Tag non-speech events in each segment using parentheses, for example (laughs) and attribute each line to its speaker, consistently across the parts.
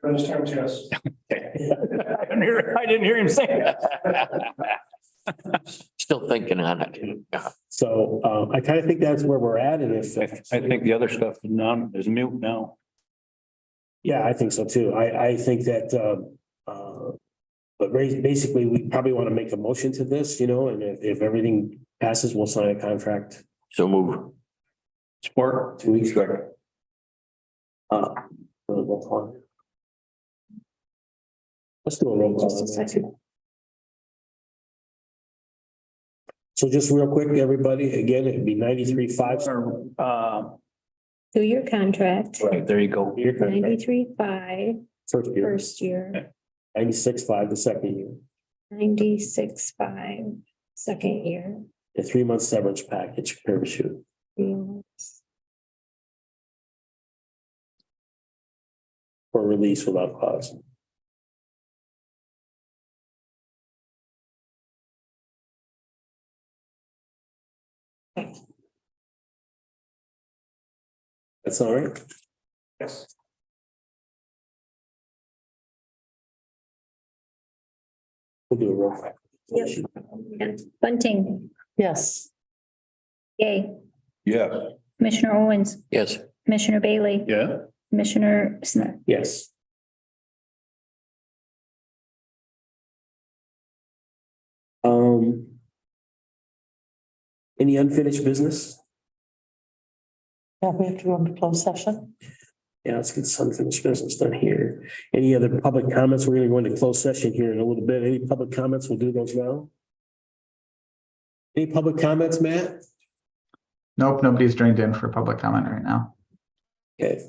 Speaker 1: Brenda's terms, yes.
Speaker 2: I didn't hear, (laughs) I didn't hear him say that. Still thinking on it.
Speaker 3: So um, I kind of think that's where we're at and if.
Speaker 4: I I think the other stuff is numb, is mute now.
Speaker 3: Yeah, I think so too. I, I think that, um, uh, but ra- basically, we probably want to make a motion to this, you know, and if, if everything passes, we'll sign a contract
Speaker 2: So move.
Speaker 4: Support.
Speaker 3: two weeks ago. Uh, roll call. Let's do a roll call. So just real quick, everybody, again, it'd be ninety-three five.
Speaker 4: Or, uh,
Speaker 5: Two year contract,
Speaker 4: right, there you go.
Speaker 3: Your contract,
Speaker 5: ninety-three five
Speaker 3: first year,
Speaker 5: first year,
Speaker 3: ninety-six five the second year,
Speaker 5: ninety-six five second year.
Speaker 3: a three-month severance package parachute.
Speaker 5: three months.
Speaker 3: for release without cause. That's all right.
Speaker 1: Yes.
Speaker 3: We'll do a roll call.
Speaker 6: Bunting,
Speaker 7: Yes.
Speaker 6: yay.
Speaker 4: Yeah.
Speaker 6: Commissioner Owens,
Speaker 2: Yes.
Speaker 6: Commissioner Bailey,
Speaker 4: Yeah.
Speaker 6: Commissioner Smith.
Speaker 3: Yes. Um. Any unfinished business?
Speaker 7: Yeah, we have to go into closed session.
Speaker 3: Yeah, let's get some finished business done here. Any other public comments? We're gonna go into closed session here in a little bit. Any public comments? We'll do those now. Any public comments, Matt?
Speaker 8: Nope, nobody's joined in for public comment right now.
Speaker 3: Okay.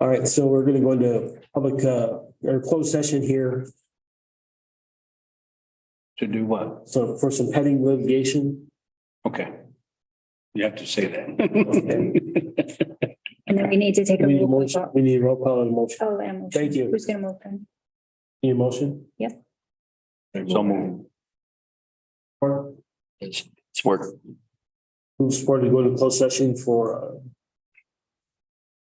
Speaker 3: All right, so we're gonna go into public, uh, or closed session here.
Speaker 4: To do what?
Speaker 3: So for some pending litigation.
Speaker 4: Okay. You have to say that.
Speaker 6: And then we need to take a.
Speaker 3: We need a
Speaker 6: roll
Speaker 3: motion.
Speaker 6: call.
Speaker 3: We need a roll call and a motion.
Speaker 6: Oh, and a motion.
Speaker 3: Thank you.
Speaker 6: Who's gonna move them?
Speaker 3: Any motion?
Speaker 4: So move.
Speaker 3: Or
Speaker 2: It's it's work.
Speaker 3: who supported to go to closed session for uh,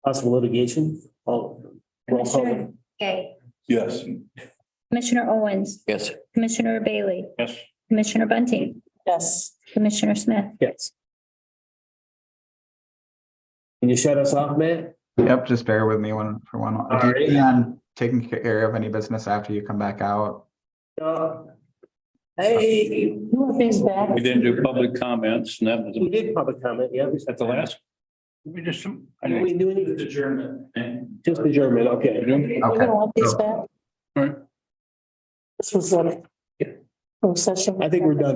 Speaker 3: possible litigation? All. roll
Speaker 6: Commissioner
Speaker 3: call.
Speaker 6: Gay,
Speaker 4: Yes.
Speaker 6: Commissioner Owens,
Speaker 2: Yes.
Speaker 6: Commissioner Bailey,
Speaker 4: Yes.
Speaker 6: Commissioner Bunting,
Speaker 7: Yes.
Speaker 6: Commissioner Smith.
Speaker 3: Yes. Can you shut us off, Matt?
Speaker 8: Yep, just bear with me one for one. Do you plan on Taking care of any business after you come back out.
Speaker 3: Uh, Hey,
Speaker 7: Things back.
Speaker 4: We didn't do public comments and that
Speaker 3: we
Speaker 4: was
Speaker 3: did public comment, yeah. we-
Speaker 4: at the last. We just. I
Speaker 3: We
Speaker 4: didn't-
Speaker 3: do any, just adjournment, okay.
Speaker 7: You're gonna want these back?
Speaker 4: Right.
Speaker 7: This was a closed session.
Speaker 3: I think we're done.